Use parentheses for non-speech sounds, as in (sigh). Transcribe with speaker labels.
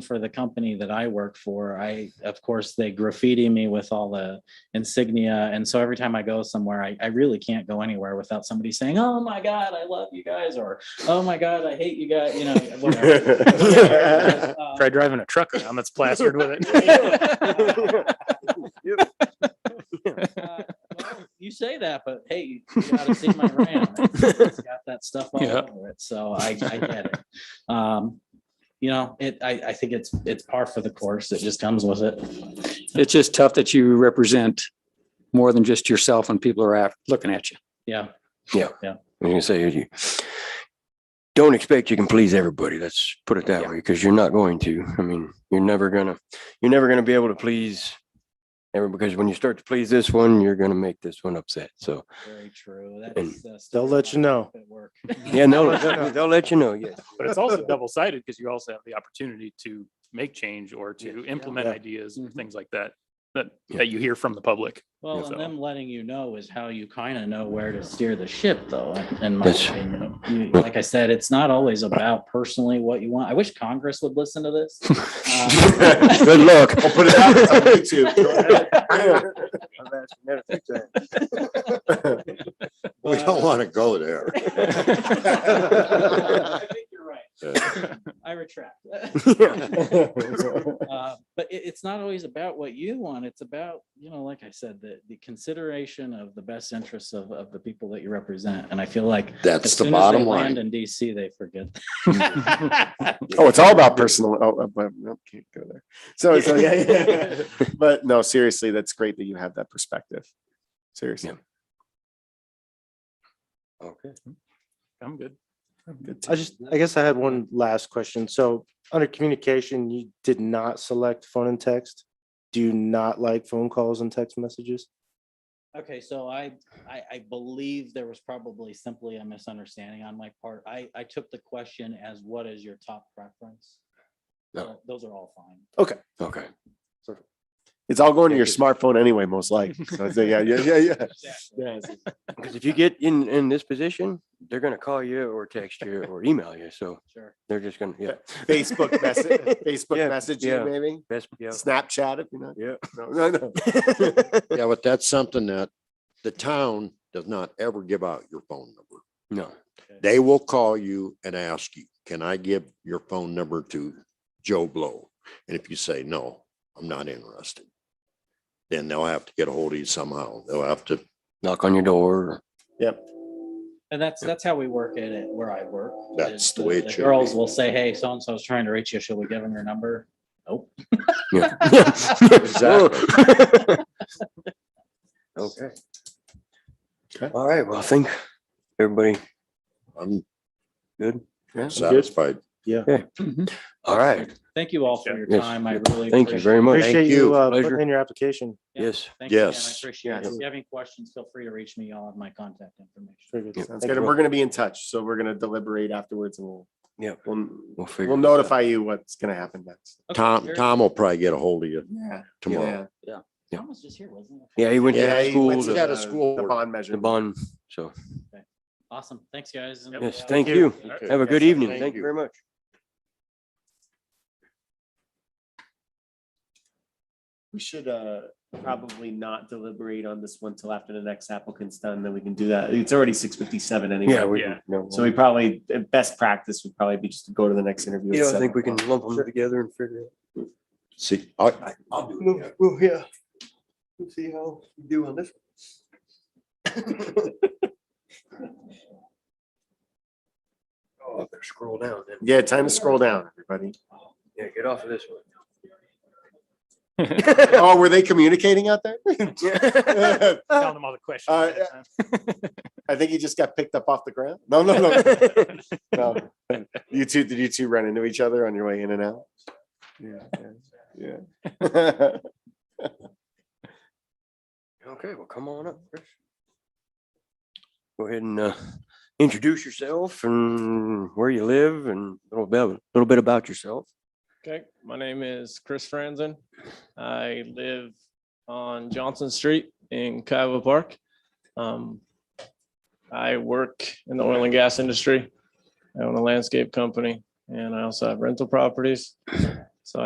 Speaker 1: for the company that I work for, I, of course, they graffiti me with all the insignia. And so every time I go somewhere, I, I really can't go anywhere without somebody saying, oh my God, I love you guys, or oh my God, I hate you guys, you know, (laughs) whatever.
Speaker 2: Yeah.
Speaker 1: Um,
Speaker 3: Try driving a truck around that's plastered with
Speaker 1: (laughs)
Speaker 3: it.
Speaker 1: uh, (laughs) well, You say that, but hey, you gotta see my RAM. It's got that stuff all
Speaker 3: Yeah.
Speaker 1: over it, so I, I get it. Um, you know, it, I, I think it's, it's par for the course. It just comes with it.
Speaker 4: It's just tough that you represent more than just yourself when people are af- looking at you.
Speaker 1: Yeah,
Speaker 2: I was gonna say, you don't expect you can please everybody. Let's put it that way, because you're not going to. I mean, you're never gonna, you're never gonna be able to please everyone, because when you start to please this one, you're gonna make this one upset. So,
Speaker 1: very true. That
Speaker 2: And-
Speaker 1: is, uh, stuff
Speaker 5: They'll let you
Speaker 1: that
Speaker 5: know.
Speaker 1: at work.
Speaker 2: yeah, no, they'll- they'll let you know, yes.
Speaker 3: But it's also double sided because you also have the opportunity to make change or to implement
Speaker 5: Yeah. Mm-hmm.
Speaker 3: ideas
Speaker 4: Mhm.
Speaker 3: and things like that, that,
Speaker 2: Yeah.
Speaker 3: that you hear from the public.
Speaker 1: Well,
Speaker 3: So-
Speaker 1: and them letting you know is how you kind of know where to steer the ship, though, in my
Speaker 2: That's-
Speaker 1: opinion. You- Like I said, it's not always about personally what you want. I wish Congress would listen to this. Um,
Speaker 2: (laughs) Good luck.
Speaker 6: I'll put it out it's on
Speaker 1: (laughs)
Speaker 6: YouTube. Go ahead. We don't want to go there.
Speaker 1: I think you're right. I retract. (laughs)
Speaker 2: (laughs)
Speaker 1: Uh, But it, it's not always about what you want. It's about, you know, like I said, the, the consideration of the best interests of, of the people that you represent. And I feel like as
Speaker 6: That's the
Speaker 1: soon as they
Speaker 6: bottom
Speaker 1: land
Speaker 6: line.
Speaker 1: In DC, they forget.
Speaker 6: (laughs) Oh,
Speaker 5: it's all about personal. Oh, uh, but no, can't go there. So, so yeah, yeah. (laughs) but no, seriously, that's great that you have that perspective. Seriously,
Speaker 2: Okay.
Speaker 3: I'm good.
Speaker 5: good. I just, I guess I had one last question. So, under communication, you did not select phone and text. Do you not like phone calls and text messages?
Speaker 1: (laughs) Okay, so I, I, I believe there was probably simply a misunderstanding on my part. I, I took the question as what is your top preference?
Speaker 2: No.
Speaker 1: So Those are all fine.
Speaker 2: Okay.
Speaker 5: It's all going to your smartphone anyway, most likely. So, it's- yeah, yeah, yeah, yeah.
Speaker 2: Because if you get in, in this position, they're gonna call you or text you or email you. So
Speaker 1: Sure.
Speaker 2: they're just gonna, yeah.
Speaker 5: (laughs) Facebook message, Facebook
Speaker 2: Yeah,
Speaker 5: message,
Speaker 2: yeah.
Speaker 5: maybe
Speaker 2: Best, yeah.
Speaker 5: Snapchat if you're not.
Speaker 2: Yeah.
Speaker 5: No, no, (laughs) no.
Speaker 6: Yeah, but that's something that the town does not ever give out your phone number.
Speaker 2: No.
Speaker 6: They will call you and ask you, can I give your phone number to Joe Blow? And if you say, no, I'm not interested, then they'll have to get a hold of you somehow. They'll have to,
Speaker 2: Knock on your door.
Speaker 1: And that's, that's how we work it at where I work.
Speaker 6: That's
Speaker 1: is
Speaker 6: the way it should be.
Speaker 1: Girls will say, hey, so-and-so's trying to reach you. Should we give them your number? (laughs)
Speaker 2: Yeah.
Speaker 6: Exactly.
Speaker 2: Okay.
Speaker 5: Okay.
Speaker 2: All right, well, I think everybody
Speaker 6: I'm
Speaker 2: good. Yeah.
Speaker 6: satisfied.
Speaker 2: All right.
Speaker 1: Thank you all for your
Speaker 2: Mm-hmm. Yes.
Speaker 1: time. I really.
Speaker 2: Oh, Thank you
Speaker 1: appreciate
Speaker 2: very
Speaker 1: it.
Speaker 2: much.
Speaker 5: Appreciate you
Speaker 6: you.
Speaker 5: uh,
Speaker 2: Pleasure.
Speaker 5: putting in your application.
Speaker 1: Yeah.
Speaker 2: Yes.
Speaker 1: Thank you again. I
Speaker 6: Yes.
Speaker 1: appreciate it.
Speaker 5: Yeah.
Speaker 1: If you have any questions, feel free to reach me. I'll have my contact information.
Speaker 5: Very good.
Speaker 2: Yep.
Speaker 5: Sounds
Speaker 2: Thank
Speaker 5: good.
Speaker 2: you.
Speaker 5: And we're gonna be in touch, so we're gonna deliberate afterwards and we'll.
Speaker 2: Yep.
Speaker 5: We'll,
Speaker 2: We'll figure.
Speaker 5: we'll
Speaker 2: it out.
Speaker 5: notify you what's gonna happen next.
Speaker 1: Okay,
Speaker 6: Tom,
Speaker 1: Jared,
Speaker 6: Tom will probably get a hold of you
Speaker 5: Yeah.
Speaker 6: tomorrow.
Speaker 2: yeah.
Speaker 1: Tom was just here, wasn't he?
Speaker 2: Yeah, he went to
Speaker 6: Yeah,
Speaker 2: that
Speaker 6: he
Speaker 2: school,
Speaker 6: went to
Speaker 2: to
Speaker 6: that- a school
Speaker 5: The
Speaker 6: board.
Speaker 5: bond measure.
Speaker 2: the bond, so,
Speaker 1: Awesome. Thanks, guys. and,
Speaker 2: yes,
Speaker 1: uh,
Speaker 2: thank
Speaker 3: you.
Speaker 2: you. Have a good evening. Thank you very much.
Speaker 5: We should uh probably not deliberate on this one till after the next applicant's done, then we can do that. It's already six fifty-seven
Speaker 2: Yeah,
Speaker 5: anyway.
Speaker 2: we,
Speaker 3: Yeah.
Speaker 2: no,
Speaker 5: So we probably, uh, best practice would probably be just to go to the next interview. at
Speaker 2: yeah, I
Speaker 5: seven
Speaker 2: think we can
Speaker 5: o'clock.
Speaker 2: lump them together and figure it out.
Speaker 6: See, I,
Speaker 2: I'll do it. Well, yeah. We'll see how you do on this. Oh, better scroll down then.
Speaker 5: Yeah, time to scroll down,
Speaker 2: (laughs)
Speaker 5: everybody.
Speaker 2: Yeah, get off of this one.
Speaker 5: Oh, were they communicating out
Speaker 2: (laughs)
Speaker 5: there?
Speaker 3: Telling them all the questions.
Speaker 5: Uh,
Speaker 3: ahead of time.
Speaker 5: I think he just got picked up off the ground. No, no,
Speaker 2: (laughs)
Speaker 5: no. No. You two, did you two run into each other on your way in and out? Yeah. Yeah. (laughs)
Speaker 2: Okay, well, come on up, Chris. Go ahead and uh, introduce yourself and where you live and a little bit, little bit about yourself.
Speaker 7: Okay, my name is Chris Franzen. I live on Johnson Street in Kiowa Park. Um, I work in the oil and gas industry. I own a landscape company and I also have rental properties.